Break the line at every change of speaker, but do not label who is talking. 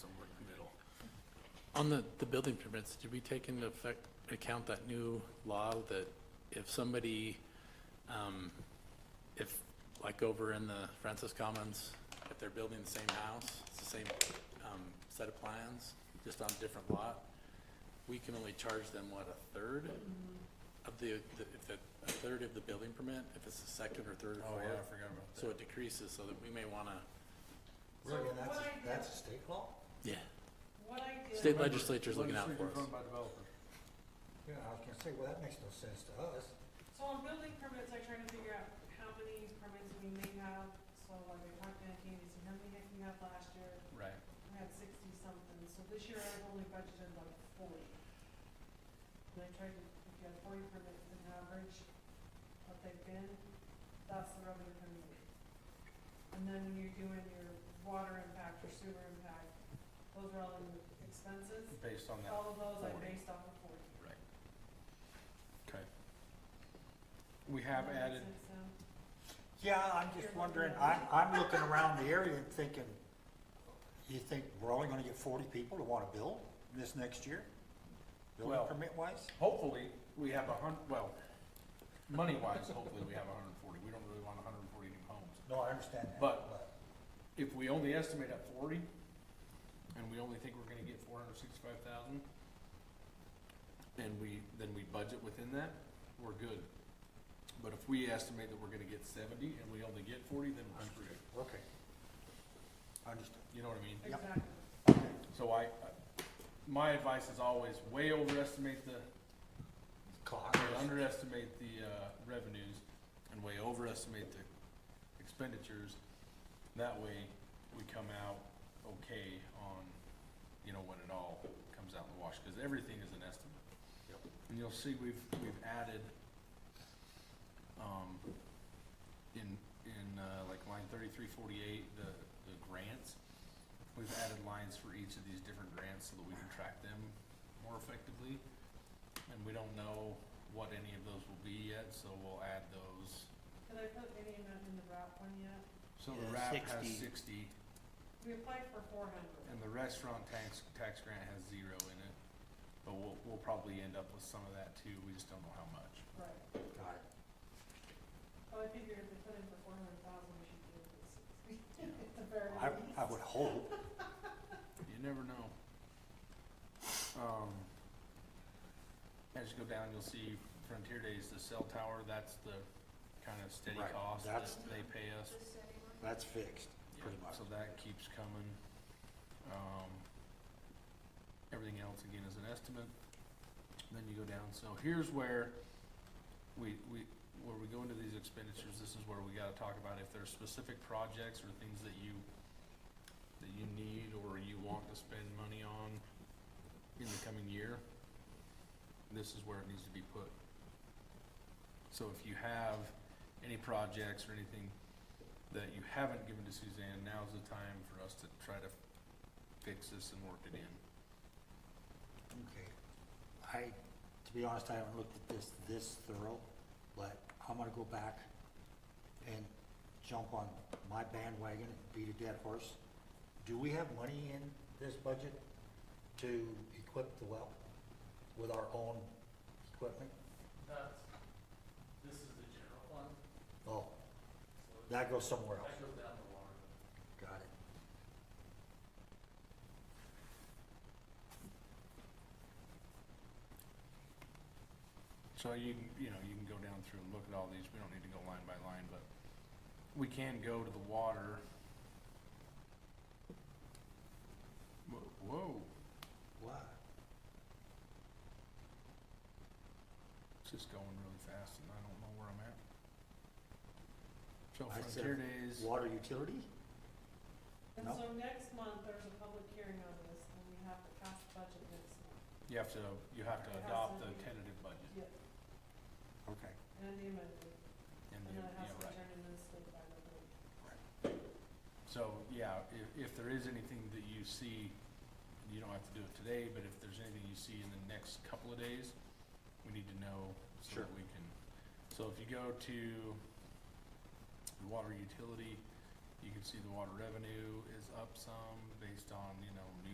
On the, the building permits, did we take into effect, account that new law that if somebody, um, if, like over in the Francis Commons, if they're building the same house, it's the same, um, set of plans, just on a different lot, we can only charge them, what, a third of the, the- if the, a third of the building permit, if it's the second or third or
Oh,
fourth?
yeah, I forgot about
So
that.
it decreases, so that we may wanna,
So
Really, and
what
that's,
I
a-
did-
that's a state law?
yeah,
What I did.
State legislature's looking out for us.
Legislature's run by developers.
Yeah, I was gonna say, well, that makes no sense to us.
So on building permits, I try to figure out how many permits we may have, so like I went back in, see how many I can have last year,
Right.
we had sixty something, so this year I've only budgeted like forty. And I tried to, if you had forty permits in average, what they've been, that's the revenue coming in. And then when you're doing your water impact or sewer impact, those are all in expenses,
Based on that.
all of those I
40.
based off of forty.
Right. Okay. We have
Does
added,
that make sense, Sam?
Yeah, I'm just wondering, I'm, I'm looking around the area and thinking, you think we're only gonna get forty people to wanna build this next year? Building
Well-
permit wise?
hopefully, we have a hun, well, money-wise, hopefully, we have a hundred and forty. We don't really want a hundred and forty new homes.
No, I understand that.
But- If we only estimate at forty, and we only think we're gonna get four hundred and sixty-five thousand, and we, then we budget within that, we're good. But if we estimate that we're gonna get seventy, and we only get forty, then we're screwed.
Okay. Understood.
You know what I mean?
Exactly.
So I, I- my advice is always way overestimate the,
Cost.
way underestimate the, uh, revenues and way overestimate the expenditures. That way, we come out okay on, you know, when it all comes out in the wash, cause everything is an estimate.
Yep.
And you'll see we've, we've added, um, in, in, uh, like line thirty-three forty-eight, the, the grants. We've added lines for each of these different grants so that we can track them more effectively. And we don't know what any of those will be yet, so we'll add those.
Did I put any amount in the wrap one yet?
So the
Yeah,
RAP has
60.
sixty,
We applied for four hundred.
and the restaurant tax, tax grant has zero in it. But we'll, we'll probably end up with some of that too, we just don't know how much.
Right. Well, I figured if they put in for four hundred thousand, we should do it for sixty. At the very
I,
least.
I would hope.
You never know. Um, as you go down, you'll see Frontier Days, the cell tower, that's the kind of steady
Right,
cost that
that's-
they pay us.
That's fixed, pretty
Yeah,
much.
So that keeps coming. Um, everything else again is an estimate. Then you go down, so here's where we, we, where we go into these expenditures, this is where we gotta talk about if there's specific projects or things that you, that you need or you want to spend money on in the coming year, this is where it needs to be put. So if you have any projects or anything that you haven't given to Suzanne, now's the time for us to try to fix this and work it in.
Okay. I, to be honest, I haven't looked at this this thorough, but I'm gonna go back and jump on my bandwagon and beat a dead horse. Do we have money in this budget to equip the well with our own equipment?
That's, this is the general fund,
Oh,
so that
that goes somewhere else.
goes down the water.
Got it.
So you can, you know, you can go down through and look at all these, we don't need to go line by line, but we can go to the water. Whoa, Whoa,
Why?
it's just going really fast and I don't know where I'm at. So
I said
Frontier Days,
Water utility?
And
No.
so next month, there's a public hearing on this, and we have to pass the budget next month.
you have to, you have to
It has
adopt
to
the
be-
tentative budget
Yes,
Okay.
and the amendment,
and
and
then,
then it
yeah,
has to
right.
turn in this state by the date.
So, yeah, if, if there is anything that you see, you don't have to do it today, but if there's anything you see in the next couple of days, we need to know so
Sure.
that we can. So if you go to the water utility, you can see the water revenue is up some based on, you know, new